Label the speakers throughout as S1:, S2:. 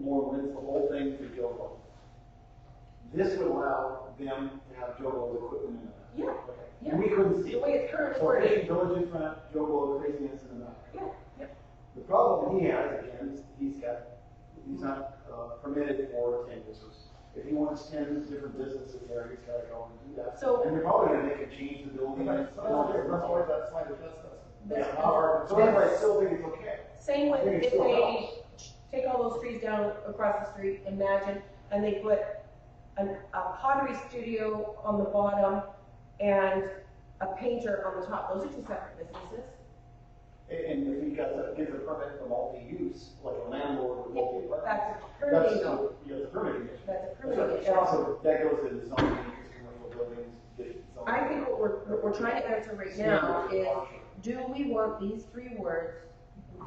S1: more rent, the whole thing to Jovo. This would allow them to have Jovo equipment in it.
S2: Yeah,
S1: Okay.
S2: Yeah.
S1: We couldn't see.
S2: the
S1: it.
S2: way it's currently
S1: So
S2: worded.
S1: crazy village in front, Jovo craziness in the back.
S2: Yeah, yeah.
S1: The problem he has, again, is he's got, he's not uh, permitted for ten businesses. If he wants ten different businesses there, he's gotta go and do that.
S2: So-
S1: And they're probably gonna make a change to the building.
S3: That's why that's why the
S1: Yeah,
S2: That's-
S1: however, so anyway, I still think it's okay.
S2: Same with
S1: Maybe
S2: if
S1: still
S2: they
S1: helps.
S2: take all those trees down across the street, imagine, and they put an, a pottery studio on the bottom and a painter on the top, those are two separate businesses.
S1: And and if he gets a, gets a permit for multi-use, like a landlord with multi-apartment.
S2: That's a permitting,
S1: That's,
S2: though.
S1: yeah, it's a permitting issue.
S2: that's a
S1: That's
S2: permitting
S1: right.
S2: issue.
S1: And also, that goes into zoning, because commercial buildings, get zoning.
S2: I think what we're, what we're trying to answer right now is, do we want these three words?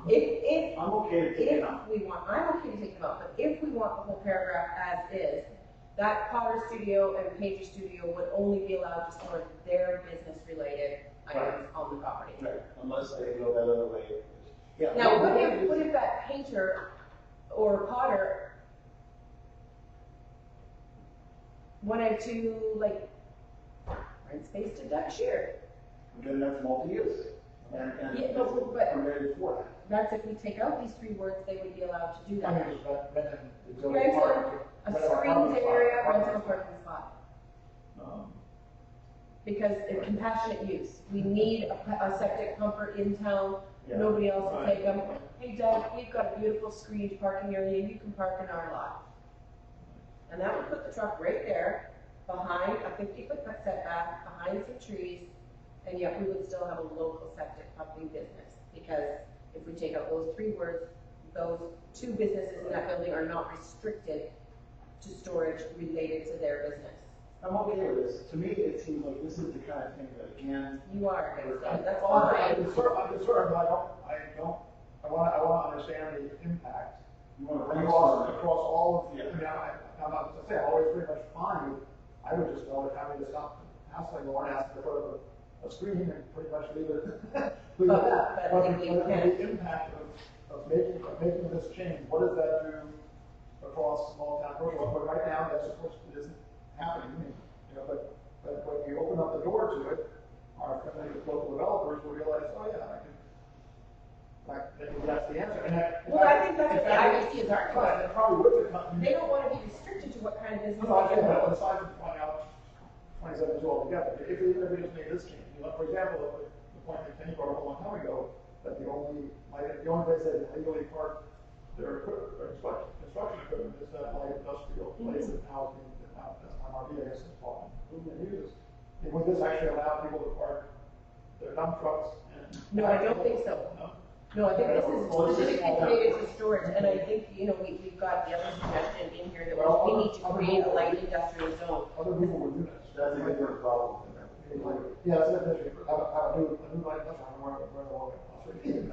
S2: If, if
S1: I'm okay to take it
S2: If
S1: out.
S2: we want, I'm okay to take them out, but if we want the whole paragraph as is, that Potter Studio and Pager Studio would only be allowed just on their business-related items on the property.
S1: Right, unless they go that other way. Yeah.
S2: Now,
S1: but-
S2: what if, what if that painter or potter wanted to, like, rent space to Dutch Shear?
S1: Then that's multi-use, and, and
S2: Yeah,
S1: it's
S2: but- but-
S1: permitted for that.
S2: That's if we take out these three words, they would be allowed to do that.
S3: Right,
S2: A
S3: But our apartment
S2: screened
S3: spot,
S2: area, rental
S3: apartment spot.
S2: parking spot.
S1: Um,
S2: because of compassionate use. We need a, a septic pumper in town,
S1: Yeah,
S2: nobody else will take them. Hey Doug, we've got a beautiful screened parking area, you can park in our lot. And that would put the truck right there, behind a fifty foot setback, behind some trees, and yet we would still have a local septic pumping business. Because if we take out those three words, those two businesses in that building are not restricted to storage related to their business.
S1: I'm okay with this, to me, it seems like this is the kind of thing that, again,
S2: You are against that, that's
S3: I'm
S2: fine.
S3: concerned, I'm concerned, but I don't, I don't, I wanna, I wanna understand the impact
S1: you want to.
S3: across, across all of,
S1: Yeah.
S3: I mean, I, I'm not, I say, I'm always pretty much fine, with- I would just go and have it stop, hassling Lauren, ask for a, a screen and pretty much leave it. leave it
S2: But-
S3: at that.
S2: but I
S3: But
S2: think we
S3: the-
S2: can't.
S3: The impact of, of making, of making this change, what does that do across small town, rural, but right now, that's of course, it isn't happening, you know, but, but when you open up the door to it, our, local developers will realize, oh yeah, I can, like, maybe that's the answer, and that.
S2: Well, I think that's what the
S3: Exactly.
S2: IBC is arguing.
S3: Right, that probably would have come.
S2: They don't want to be restricted to what kind of business
S3: No, I
S2: they
S3: think
S2: can
S3: that
S2: hold.
S3: was aside from point out twenty-seven is altogether, if we, if we just made this change, you know, for example, the the point that Kenny brought up a long time ago, that the only, like, the only place that legally park their equip- their construction, construction equipment is that light industrial place that now, is being- that now, that's MRB, I guess, is falling, moving uses. And would this actually allow people to park their dump trucks and?
S2: No, I don't think so.
S3: No?
S2: No, I think this is
S1: Well, this is
S2: specifically
S1: all-
S2: related to storage, and I think, you know, we, we've got the other suggestion in here that
S3: Well,
S2: we- we need to
S3: other-
S2: create a light industrial zone.
S3: Other people would do this.
S1: That's a different problem than that.
S3: Yeah, that's a different, I, I do, I do like that, I'm more, more of a, I'm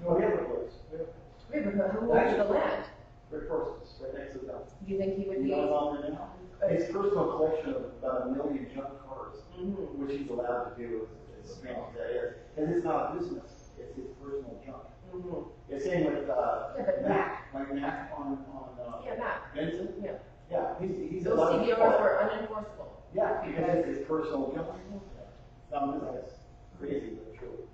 S1: No, we have a place, we have
S2: We have a who owns the land?
S1: Rick Parsons, right next to them.
S2: Do you think he would
S1: He's
S2: be?
S1: not on there now. His personal collection of about a million junk cars,
S2: Mhm.
S1: which he's allowed to do, is is strange as that is, because it's not a business, it's his personal junk.
S2: Mhm.
S1: The same with, uh,
S2: Yeah, but
S1: Mac, like Mac on, on, uh,
S2: Yeah, Matt,
S1: Benson,
S2: yeah.
S1: yeah, he's, he's.
S2: Those
S1: allowed to
S2: CBRs
S1: park.
S2: were unenforceable.
S1: Yeah, because it's his personal junk. Some of it's crazy, but true.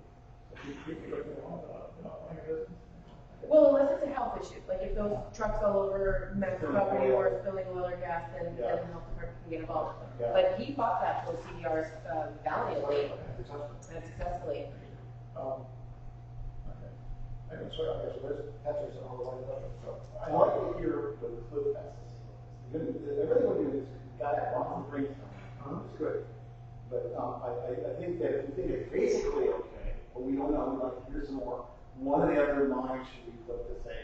S2: Well, unless it's a health issue, like if those trucks all over Matt's
S1: Spilling
S2: property
S1: oil.
S2: or spilling oil or gas, then,
S1: Yeah.
S2: then the health department can get involved.
S1: Yeah.
S2: But he bought that for CDRs um, valiantly and successfully.
S3: Um, okay. I can swear, I guess, there's, that's just all the way up, so.
S1: I like to hear the clip passes. Everything we do is got that off the brainstorm. It's good. But um, I, I, I think that, we think it's basically okay, but we don't know, we'd like to hear some more. One of the other lines should we put to say,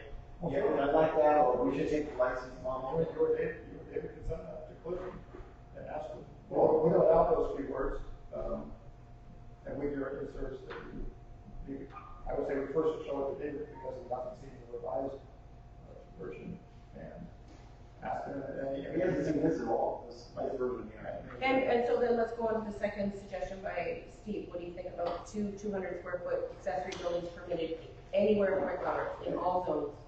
S1: yeah, I like that, or we should take the license
S3: Well,
S1: model.
S3: you were David, you were David could send that to Clifton and ask them, well, without out those three words, um, and we do it in service that we, we- I would say we first should show it to David because he hasn't seen the revised uh, version and ask him, and he
S1: He hasn't seen this at all, this, my version here.
S2: And, and so then let's go on to the second suggestion by Steve. What do you think about two two hundred square foot accessory buildings permitted anywhere in Red Rock in all zones?